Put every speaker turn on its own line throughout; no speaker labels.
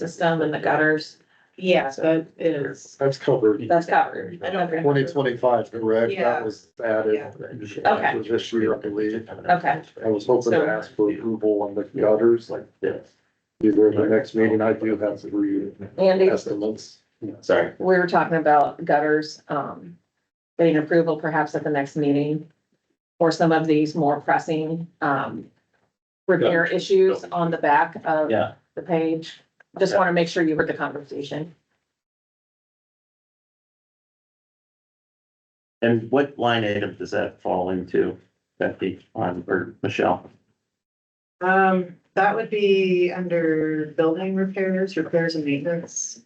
system and the gutters. Yes, that is,
That's covered.
that's covered.
I
Okay.
Twenty twenty-five, correct?
Yeah.
That was added.
Okay.
It was This year, I believe.
Okay.
I was hoping
So-
to ask for approval on the gutters, like, yes. Either the next meeting, I do have three
Andy,
estimates. Sorry.
we were talking about gutters, um, getting approval perhaps at the next meeting for some of these more pressing, um, repair issues on the back of
Yeah.
the page. Just want to make sure you heard the conversation.
And what line item does that fall into, Becky, on, or Michelle?
Um, that would be under building repairs, repairs and maintenance.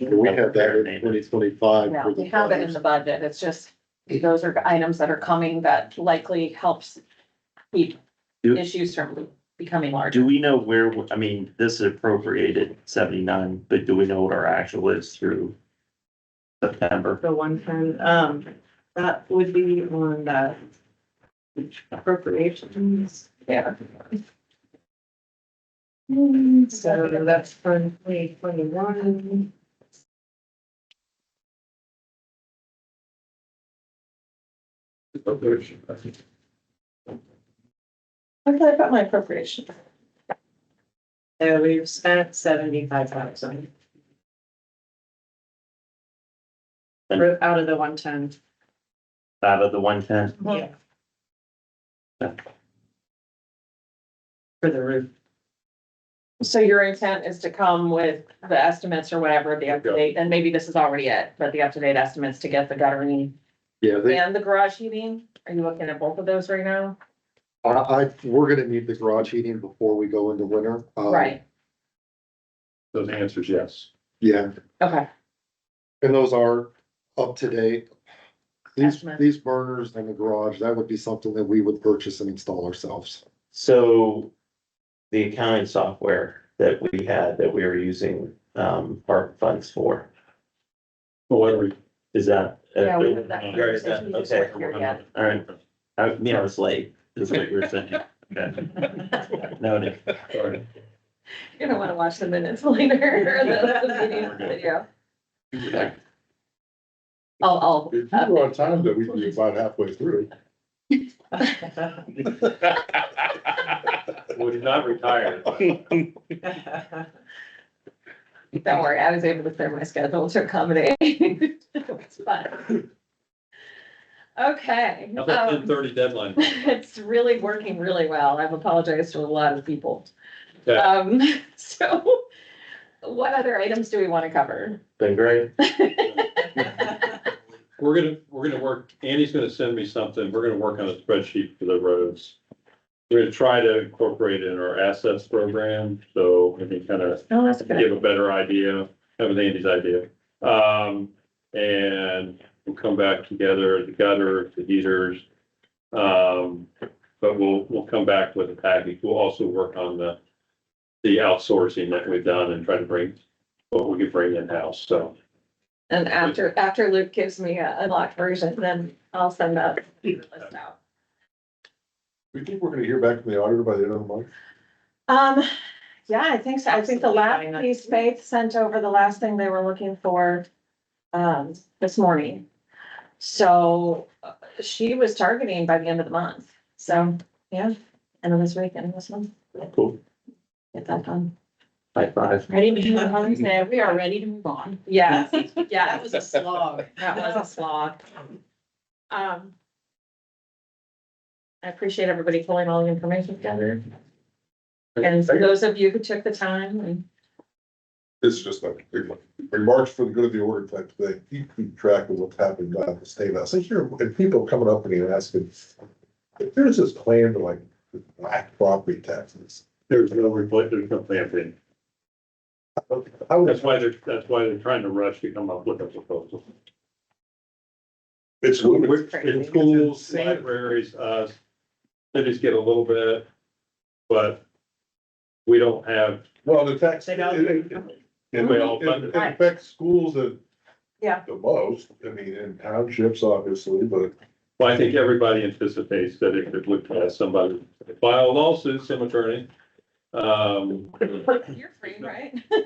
We had that in twenty twenty-five.
Yeah, we have it in the budget. It's just, those are items that are coming that likely helps keep
Do-
issues from becoming larger.
Do we know where, I mean, this is appropriated seventy-nine, but do we know what our actual is through September?
The one time, um, that would be on the appropriations.
Yeah.
So that's from twenty twenty-one.
Where did I put my appropriation?
So Uh, we've spent seventy-five thousand. Out of the one ten.
Out of the one-ten?
Yeah.
Yeah.
For the roof.
So your intent is to come with the estimates or whatever, the up-to-date, and maybe this is already it, but the up-to-date estimates to get the guttering
Yeah, they,
and the garage heating? Are you looking at both of those right now?
I, I, we're gonna need the garage heating before we go into winter. Um,
Right,
So the answer is yes.
Yeah,
okay,
and those are up to date. These,
Estimates.
these burners in the garage, that would be something that we would purchase and install ourselves.
So the accounting software that we had, that we were using, um, our funds for,
But what are we?
is that?
yeah, we have that
Right,
conversation, you just
okay.
weren't here yet.
All right, I, you know, I was late, is what you were saying. Okay. Noted.
Sorry.
You're gonna wanna watch the minutes later, the- the meeting video. I'll, uh,
If
I'll,
you were on time, then we'd be about halfway through.
Would not retire.
Don't worry, I was able to clear my schedule to accommodate. It's fun. Okay.
How's that
um,
ten thirty deadline?
It's really working really well. I've apologized to a lot of people.
Okay.
Um, so what other items do we want to cover?
Been great.
We're gonna, we're gonna work, Andy's gonna send me something. We're gonna work on a spreadsheet for the roads. We're gonna try to incorporate it in our assets program, so we can kind of
Oh, that's a good.
give a better idea, that was Andy's idea. Um, and we'll come back together, the gutter, the heaters. Um, but we'll, we'll come back with a package. We'll also work on the, the outsourcing that we've done and try to bring what we can bring in-house, so.
And after, after Luke gives me a unlocked version, then I'll send that list out.
We think we're gonna hear back from the auditor by the end of the month.
Um, yeah, I think so. I think the
Absolutely,
last
why not?
piece Faith sent over, the last thing they were looking for, um, this morning. So uh, she was targeting by the end of the month. So, yeah, end of this week, end of this month.
Cool.
Get that done.
High five.
Ready to move
on?
We are ready to move on. Yes,
That
yes,
was a slog.
that was a slog. Um. I appreciate everybody pulling all the information together. And for those of you who took the time and
It's just like, remarks for the good of the order type thing, you keep track of what's happening down at the state house, I hear, and people coming up to me and asking. If there's this plan to like, black property taxes,
There's no, repla- there's no plan for it.
I would,
That's why they're, that's why they're trying to rush to come up with a proposal.
it's ludicrous.
In schools, libraries, uh, cities get a little bit, but we don't have,
well, the tax.
They don't-
it- it- It
We all fund
it
it.
affects schools the.
Yeah.
The most, I mean, in townships, obviously, but
well, I think everybody anticipates that if it looked at somebody, file a lawsuit, some attorney. Um,
You're free, right?